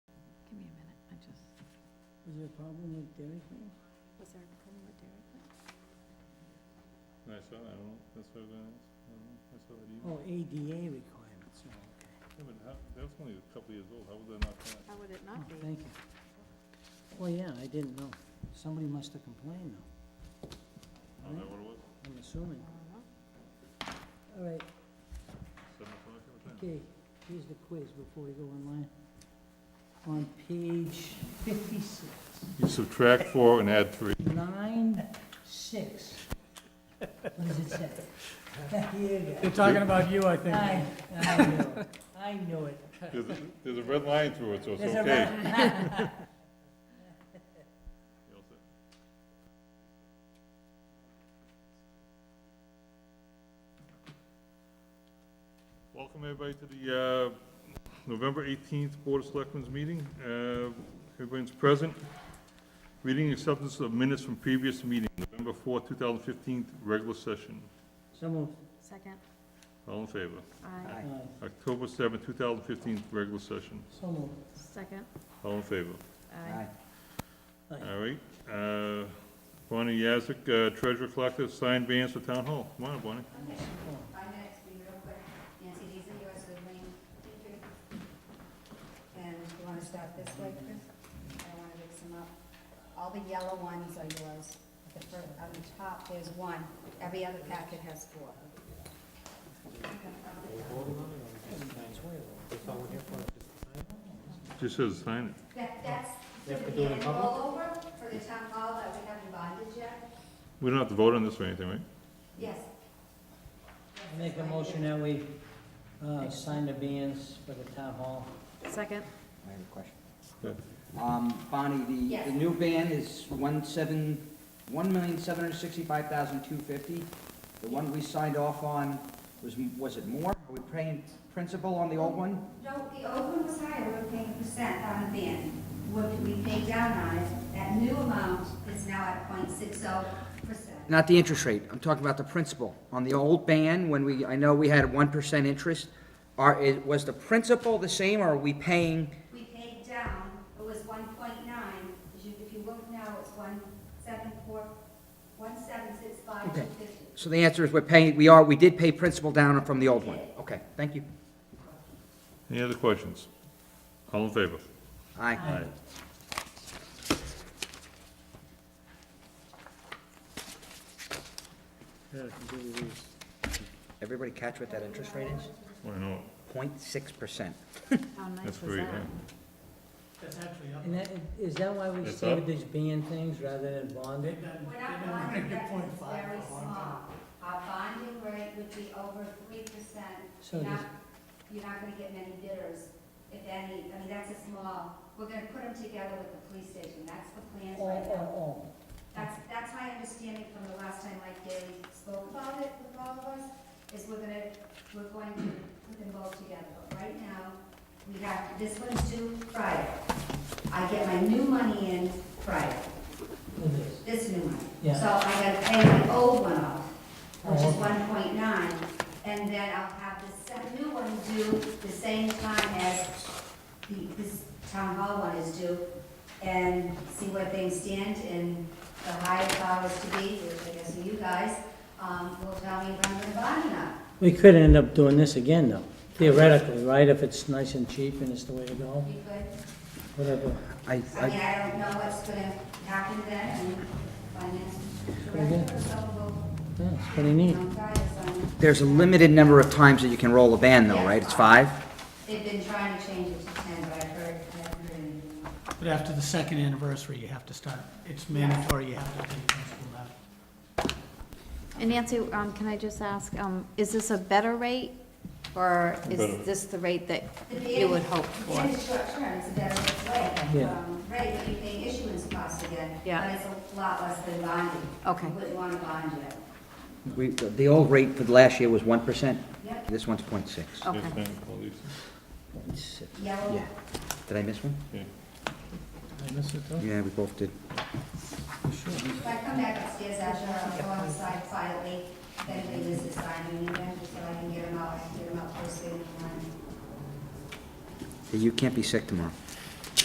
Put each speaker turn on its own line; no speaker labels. Is there a problem with Dairy Queen?
Was there a problem with Dairy Queen?
I saw that, well, that's what I, I saw that email.
Oh, ADA requirements, oh, okay.
Yeah, but how, that was only a couple years old, how was that not passed?
How would it
Oh,
not be?
thank you. Oh, yeah, I didn't know. Somebody must have complained though,
Oh, is that what it was?
I'm assuming.
I don't know.
All right,
Seven o'clock every time?
okay, here's the quiz before we go online. On page fifty-six,
You subtract four and add three.
nine, six. What does it say? Here you go.
They're talking about you, I think.
I, I knew it. I knew it.
There's, a- there's a red line through it, so it's
There's a
okay.
red-
You all set? Welcome everybody to the, uh, November eighteenth Board of Selectmen's meeting. Uh, everyone's present. Reading acceptance of minutes from previous meeting, November fourth, two thousand fifteen, regular session.
So moved.
Second,
All in favor?
aye.
Aye.
October seventh, two thousand fifteen, regular session.
Uh, So moved.
Second,
All in favor?
aye.
Aye.
All right, uh, Bonnie Yazick, uh, treasurer collector, signed bands for town hall. Come on, up, Bonnie.
Five minutes, be real quick. Nancy Deason, US Wood Lane. And you wanna start this way, Chris? I wanna mix them up. All the yellow ones are yours. At The fir- on the top, there's one. Every other packet has four.
Just says sign it.
That, that's typically a rollover for the town hall that we haven't bonded yet.
We don't have to vote on this or anything, right?
Yes.
I make a motion that we, uh, sign the bans for the town hall.
Second,
I have a question.
Yeah.
Um, Bonnie, the,
Yes.
the new ban is one seven, one million, seven hundred sixty-five thousand, two fifty. The one we signed off on was, m- was it more? Are we paying principal on the old one?
No, the old one was higher, we were paying percent on the ban. What we paid down on it, that new amount is now at 060 percent.
Not the interest rate, I'm talking about the principal. On the old ban, when we, I know we had one percent interest, are, it, was the principal the same, or are we paying?
we paid down, it was one point nine, if you, if you look now, it's one seven four, one seven six five two
Okay.
fifty.
So the answer is we're paying, we are, we did pay principal down from the old one. Okay, thank you.
Any other questions? All in favor?
Aye.
Aye.
Everybody catch what that interest rate is?
Why not?
0.6%.
how nice
That's
was
very,
that?
That's actually up.
And that, is that why we
It's
stay with
up.
these ban things rather than bonded?
We're not bonding, that is very small. Our bonding rate would be over three percent.
So
You're
it is-
not, you're not gonna get many bidders, if any, I mean, that's a small, we're gonna put them together with the police station, that's the plan
Oh,
right now.
oh,
That's, that's my understanding from the last time Mike Daly spoke about it with all of us, is we're gonna, we're going to put them both together. But right now, we have, this one's due Friday. I get my new money in Friday,
oh, it is.
this new money.
Yeah.
So I gotta pay my old one off, which
Oh,
is
okay.
one point nine, and then I'll have the se- new one due the same time as the, this town hall one is due, and see where things stand, and the higher powers to be, which I guess are you guys, um, will tell me if I'm gonna buy or not.
We could end up doing this again though, theoretically, right? If it's nice and cheap and it's the way to go,
You could,
whatever.
I,
I
I,
mean, I don't know what's gonna happen then, and finance director or someone
Yeah, it's pretty
will,
neat.
um, try this on.
there's a limited number of times that you can roll a ban though, right? It's five?
They've been trying to change it to ten, but I've heard, I haven't heard anything.
But after the second anniversary, you have to start, it's mandatory, you have to pay principal now.
And Nancy, um, can I just ask, um, is this a better rate? Or
Better.
is this the rate that
The
you would
bid-
hope
It's
for?
in the short term, it's a better way,
Yeah.
um, right, but you pay issuance costs again.
Yeah.
But it's a lot less than bonding.
Okay.
You wouldn't want to bond yet.
We, the old rate for the last year was 1%.
Yep,
This one's 0.6.
Okay.
Yes, ma'am, all these.
Six.
yellow,
Yeah. Did I miss one?
Yeah.
Yeah, we both did.
if I come back upstairs, I'll go outside quietly, if anybody needs to sign in, then just so I can get them out, I can get them out first thing in the morning.
You can't be sick tomorrow.